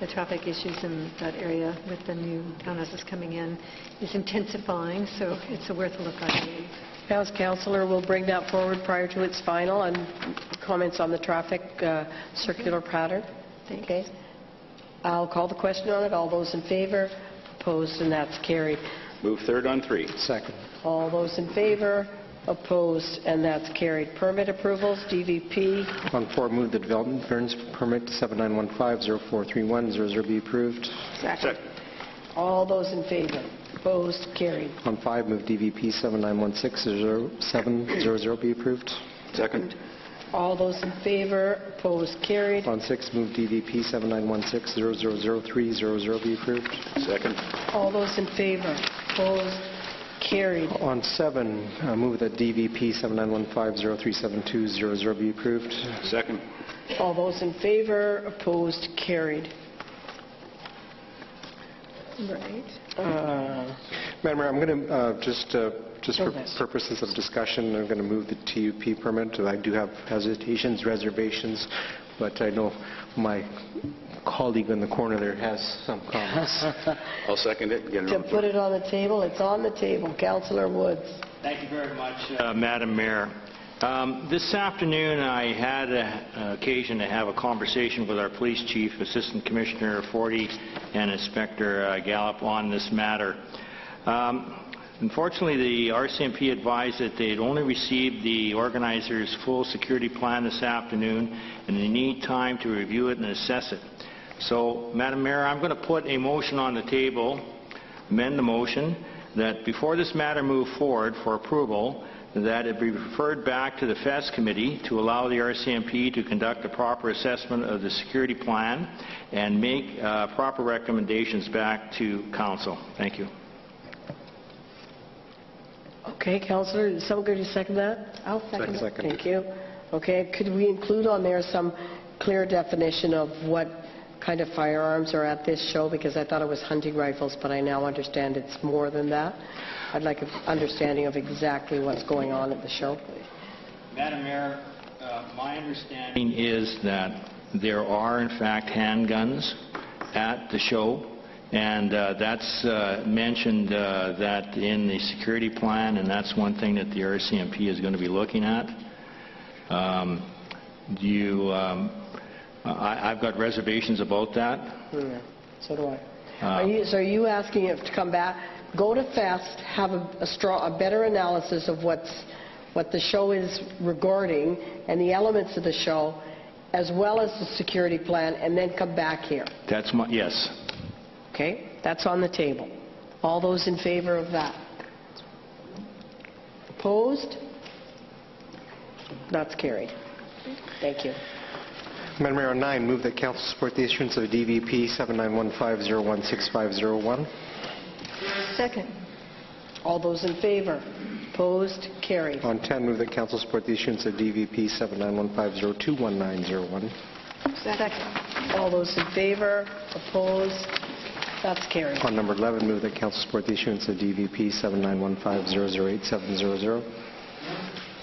the traffic issues in that area with the new townhouses coming in is intensifying, so it's a worth a look, I believe. House Counselor will bring that forward prior to its final and comments on the traffic uh, circular pattern. Thanks. Okay. I'll call the question on it. All those in favor? Opposed, and that's carried. Move third on three. Second. All those in favor? Opposed, and that's carried. Permit approvals, DVP, On four, move the development variance permit 7915043100 be approved. Second. all those in favor? Opposed, carried. On five, move DVP 79160700 be approved. Second. All those in favor? Opposed, carried. On six, move DVP 7916000300 be approved. Second. All those in favor? Opposed, carried. On seven, uh, move that DVP 7915037200 be approved. Second. All those in favor? Opposed, carried. Right. Uh, Madam Mayor, I'm going to, just, uh, just for Go ahead. purposes of discussion, I'm going to move the TUP permit. I do have hesitations, reservations, but I know my colleague in the corner there has some comments. I'll second it. Get it To over. put it on the table, it's on the table. Counselor Woods. Thank you very much, uh, Madam Mayor. Um, This afternoon, I had a- a occasion to have a conversation with our police chief, Assistant Commissioner Forty, and Inspector uh, Gallup on this matter. Um, Unfortunately, the RCMP advised that they had only received the organizer's full security plan this afternoon, and they need time to review it and assess it. So, Madam Mayor, I'm going to put a motion on the table amend the motion that before this matter move forward for approval, that it be referred back to the FES committee to allow the RCMP to conduct a proper assessment of the security plan and make uh, proper recommendations back to council. Thank you. Okay, Counselor, is someone going to second that? I'll second it. Second. Thank you. Okay, could we include on there some clear definition of what kind of firearms are at this show? Because I thought it was hunting rifles, but I now understand it's more than that. I'd like an understanding of exactly what's going on at the show, please. Madam Mayor, uh, my understanding is that there are, in fact, handguns at the show, and uh, that's uh, mentioned uh, that in the security plan, and that's one thing that the RCMP is going to be looking at. Um, Do you, um, I- I've got reservations about that. Yeah, So do I. Are you, so are you asking if to come back, go to FEST, have a a strong, a better analysis of what's, what the show is regarding and the elements of the show, as well as the security plan, and then come back here? That's my, yes. Okay? That's on the table. All those in favor of that? Opposed? That's carried. Thank you. Madam Mayor, on nine, move that council support the issuance of DVP 7915016501. Second. All those in favor? Opposed? Carried. On 10, move that council support the issuance of DVP 7915021901. Second. All those in favor, opposed, that's carried. On number 11, move that council support the issuance of DVP 7915008700.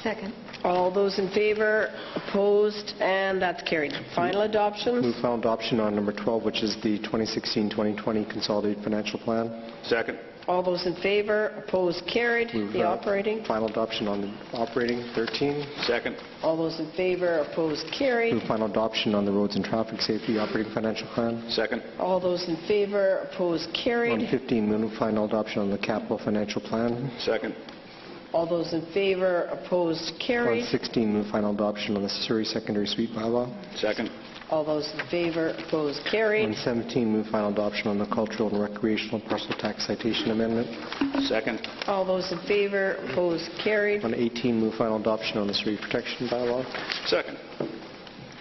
Second. All those in favor, opposed, and that's carried. Final adoption, Move final adoption on number 12, which is the 2016-2020 Consolidated Financial Plan. Second. all those in favor, opposed, carried. Move, The uh, operating, Final adoption on the operating, 13. Second. all those in favor, opposed, Move carried. final adoption on the Roads and Traffic Safety Operating Financial Plan. Second. All those in favor, opposed, On carried. 15, move final adoption on the Capital Financial Plan. Second. All those in favor, opposed, On carried. 16, move final adoption on the Surrey Secondary Suite Bylaw. Second. All those in favor, opposed, On carried. 17, move final adoption on the Cultural and Recreational Parcel Tax Citation Amendment. Second. All those in favor, opposed, carried. On 18, move final adoption on the Surrey Protection Bylaw. Second.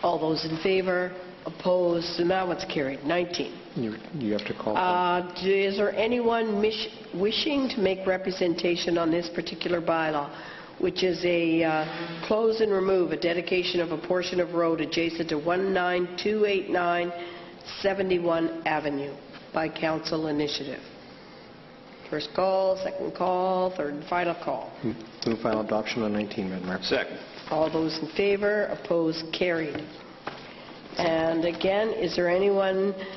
All those in favor, opposed, and that one's carried. 19. You you have to call. Uh, do- Is there anyone mish- wishing to make representation on this particular bylaw, which is a uh, close and remove, a dedication of a portion of road adjacent to 19289 71 Avenue by council initiative? First call, second call, third and final call. Move final adoption on 19, Madam Mayor. Second. All those in favor, opposed, carried. And again, is there anyone